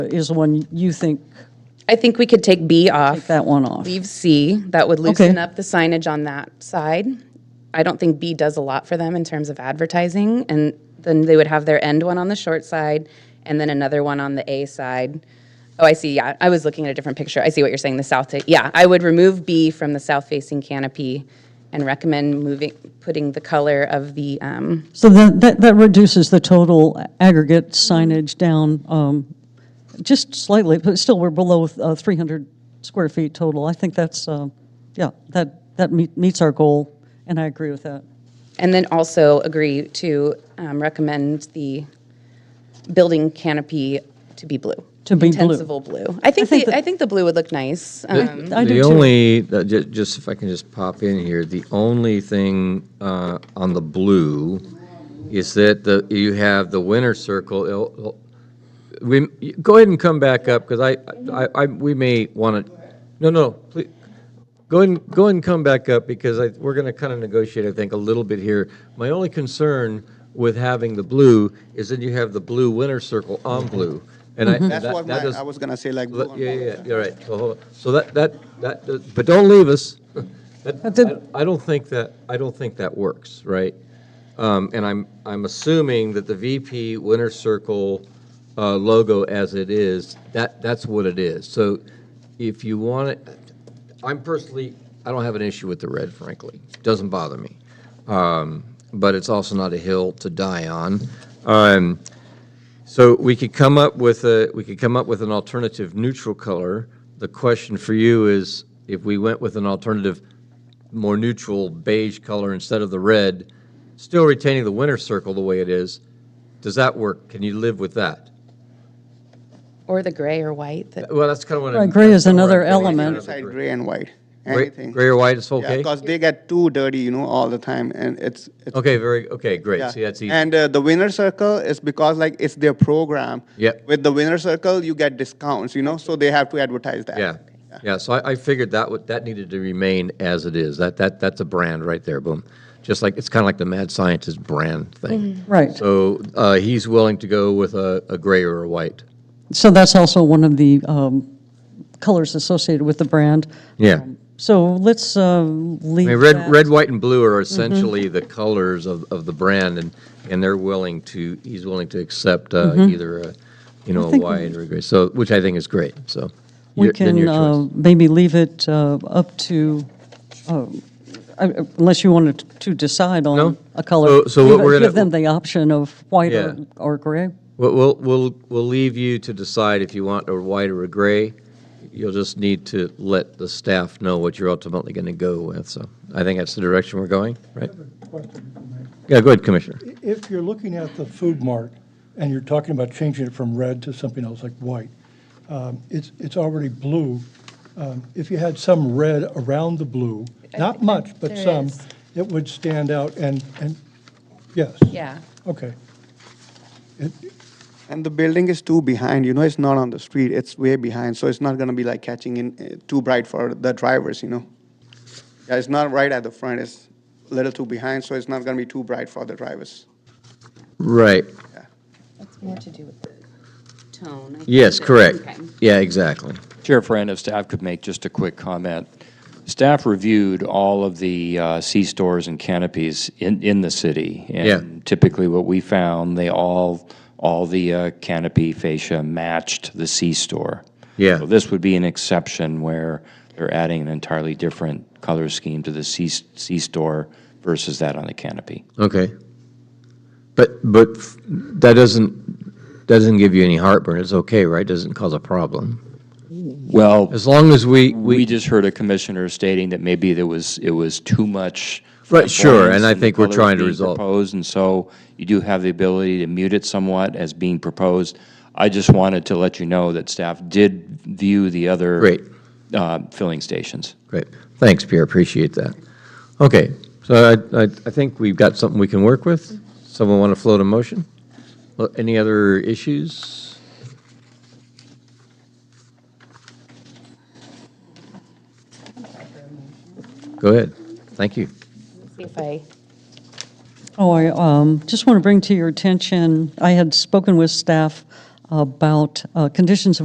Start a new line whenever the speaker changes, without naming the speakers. is the one you think,
I think we could take B
take
off,
that one off.
leave C, that would loosen
Okay.
up the signage on that side. I don't think B does a lot for them in terms of advertising, and then they would have their end one on the short side, and then another one on the A side. Oh, I see, yeah, I was looking at a different picture, I see what you're saying, the south, ta- yeah, I would remove B from the south-facing canopy and recommend moving, putting the color of the, um,
So then, that, that reduces the total aggregate signage down um, just slightly, but still, we're below uh, 300 square feet total. I think that's, uh, yeah, that, that meet- meets our goal, and I agree with that.
And then also agree to um, recommend the building canopy to be blue.
To be blue.
Intensible blue. I think, the- I think the blue would look nice. Um,
I do too.
The only, uh, ju- just if I can just pop in here, the only thing uh, on the blue is that the, you have the winter circle. it'll- it'll- We, go ahead and come back up, because I, I, I, we may want to, no, no, please, go ahead, and- go ahead and come back up, because I, we're going to kind of negotiate, I think, a little bit here. My only concern with having the blue is that you have the blue winter circle on blue. And I, that
That's what
that
my,
does-
I was gonna say, like. blue
Let-
and
Yeah,
purple.
yeah, yeah, you're right. So, hold on. So that, that, that, does- but don't leave us. That-
But the-
I I don't think that, I don't think that works, right? Um, And I'm, I'm assuming that the VP Winter Circle uh, logo as it is, that, that's what it is. So if you want it, I'm personally, I don't have an issue with the red, frankly. Doesn't bother me. Um, But it's also not a hill to die on. Um, so we could come up with a, we could come up with an alternative neutral color. The question for you is, if we went with an alternative, more neutral beige color instead of the red, still retaining the winter circle the way it is, does that work? Can you live with that?
Or the gray or white. that-
Well, that's kind of what
Right,
I'm.
gray is
that's kinda
another
where I'm going.
element.
Another
Inside
gray.
gray and white,
Gray-
anything.
Gray or white is
Yeah,
okay?
because they get too dirty, you know, all the time, and it's. it's-
Okay, very, okay, great.
yeah.
See, that's easy.
And uh, the winner circle is because like it's their program.
Yep.
With the winner circle, you get discounts, you know, so they have to advertise that.
Yeah, yeah, so I, I figured that would, that needed to remain as it is. That, that, that's a brand right there, boom. Just like, it's kind of like the mad scientist brand thing.
Right.
So uh, he's willing to go with a, a gray or a white.
So that's also one of the um, colors associated with the brand.
Yeah.
So let's uh,
I
leave
mean, red,
that.
red, white, and blue
Mm-hmm.
are essentially the colors of, of the brand, and, and they're willing to, he's willing to accept uh, either, a, you know, a
Mm-hmm. think we-
white or a gray, so, which I think is great, so.
We
your- then your
can
choice.
uh, maybe leave it uh, up to, uh, I- unless you wanted to decide on
No.
a color.
So- so what
Give-
we're gonna-
Give them the option of white or-
Yeah.
or gray.
We'll, we'll, we'll, we'll leave you to decide if you want a white or a gray. You'll just need to let the staff know what you're ultimately going to go with, so I think that's the direction we're going, right? Yeah, go ahead, Commissioner.
If you're looking at the food mart and you're talking about changing it from red to something else like white, um, it's, it's already blue. Um, If you had some red around the blue, not much, but
there
some,
is.
it would stand out and, and, yes.
Yeah.
Okay. It-
And the building is too behind, you know, it's not on the street, it's way behind, so it's not gonna be like catching in, uh, too bright for the drivers, you know? Yeah, it's not right at the front, it's a little too behind, so it's not gonna be too bright for the drivers.
Right,
That's more to do with the tone. I think,
yes,
but-
correct.
okay.
Yeah, exactly.
Chair Friend, if staff could make just a quick comment. Staff reviewed all of the uh, C-stores and canopies in, in the city.
Yeah.
And typically what we found, they all, all the uh, canopy fascia matched the C-store.
Yeah.
So this would be an exception where they're adding an entirely different color scheme to the C, C-store versus that on the canopy.
Okay. But, but f- that doesn't, doesn't give you any heartburn. It's okay, right? Doesn't cause a problem.
Well,
As long as we,
we
we,
just heard a commissioner stating that maybe there was, it was too much.
Right, sure, and I
flamboyance in the
think we're
colors
trying to
being
resolve.
Proposed, and so you do have the ability to mute it somewhat as being proposed. I just wanted to let you know that staff did view the other.
Great.
Uh, filling stations.
great. Thanks, Pierre, appreciate that. Okay, so I, I, I think we've got something we can work with. Someone want to float a motion? Well, Any other issues? Go ahead, thank you.
Let's See if I,
Oh, I um, just want to bring to your attention, I had spoken with staff um, about uh, conditions of